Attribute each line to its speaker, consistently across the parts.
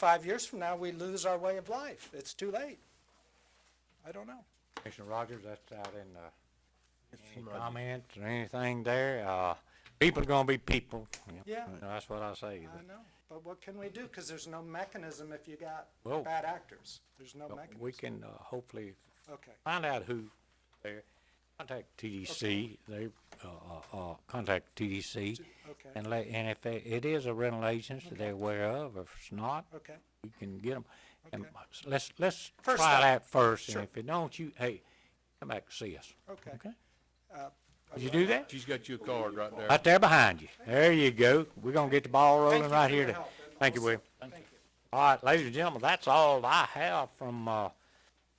Speaker 1: five years from now, we lose our way of life. It's too late. I don't know.
Speaker 2: Commissioner Rogers, that's out in, uh, any comments or anything there, uh, people are gonna be people. Yep.
Speaker 1: Yeah.
Speaker 2: That's what I say.
Speaker 1: I know. But what can we do? Because there's no mechanism if you got
Speaker 2: Well-
Speaker 1: bad actors. There's no
Speaker 2: But
Speaker 1: mechanism.
Speaker 2: We can, uh, hopefully
Speaker 1: Okay.
Speaker 2: find out who there, contact TDC, they, uh, uh, uh, contact TDC.
Speaker 1: okay.
Speaker 2: And let, and if it, it is a rental agency they're aware of, or if it's not,
Speaker 1: Okay.
Speaker 2: we can get them. And
Speaker 1: Okay.
Speaker 2: let's, let's
Speaker 1: First
Speaker 2: try
Speaker 1: up.
Speaker 2: that first, and
Speaker 1: Sure.
Speaker 2: if it don't, you, hey, come back and see us.
Speaker 1: Okay.
Speaker 2: Okay?
Speaker 1: Uh,
Speaker 2: Would you do that?
Speaker 3: She's got you a card right there.
Speaker 2: Right there behind you. There you go. We're gonna get the ball
Speaker 1: Thank you
Speaker 2: rolling right
Speaker 1: for
Speaker 2: here.
Speaker 1: your
Speaker 2: to-
Speaker 1: help, and
Speaker 2: Thank you,
Speaker 1: also-
Speaker 2: William.
Speaker 1: Thank you.
Speaker 2: All right, ladies and gentlemen, that's all I have from, uh,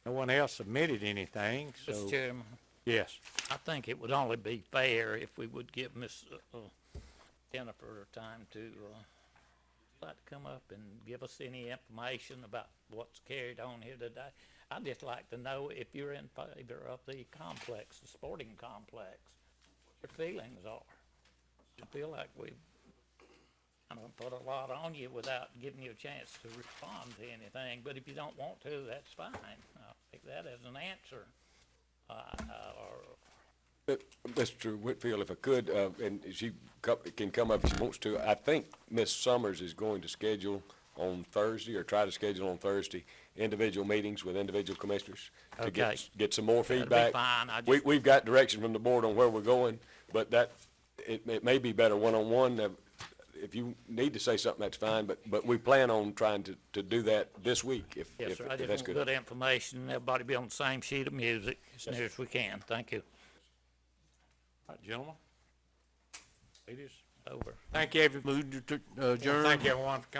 Speaker 2: no one else submitted anything,
Speaker 4: Mr.
Speaker 2: so,
Speaker 4: Chairman,
Speaker 2: yes.
Speaker 4: I think it would only be fair if we would give Miss uh, uh, Jennifer time to, uh, like to come up and give us any information about what's carried on here today. I'd just like to know if you're in favor of the complex, the sporting complex, what your feelings are. I feel like we've, I'm gonna put a lot on you without giving you a chance to respond to anything, but if you don't want to, that's fine. I'll take that as an answer. Uh, uh, or
Speaker 3: Uh, Mr. Whitfield, if I could, uh, and she co- can come up if she wants to, I think Ms. Summers is going to schedule on Thursday, or try to schedule on Thursday, individual meetings with individual commissioners to
Speaker 4: Okay.
Speaker 3: get, s- get some more
Speaker 4: That'd be
Speaker 3: feedback.
Speaker 4: fine, I
Speaker 3: We,
Speaker 4: just-
Speaker 3: we've got direction from the board on where we're going, but that, it, it may be better one-on-one. Uh, If you need to say something, that's fine, but, but we plan on trying to, to do that this week, if,
Speaker 4: Yes,
Speaker 3: if
Speaker 4: sir. I
Speaker 3: if
Speaker 4: just
Speaker 3: that's
Speaker 4: want
Speaker 3: good.
Speaker 4: good information. Everybody be on the same sheet of music as near as we can. Thank you.
Speaker 2: All right, gentlemen. Ladies.
Speaker 4: Over.
Speaker 2: Thank you, everyone.
Speaker 5: Move to, to adjourn.
Speaker 2: Thank you, everyone, for coming.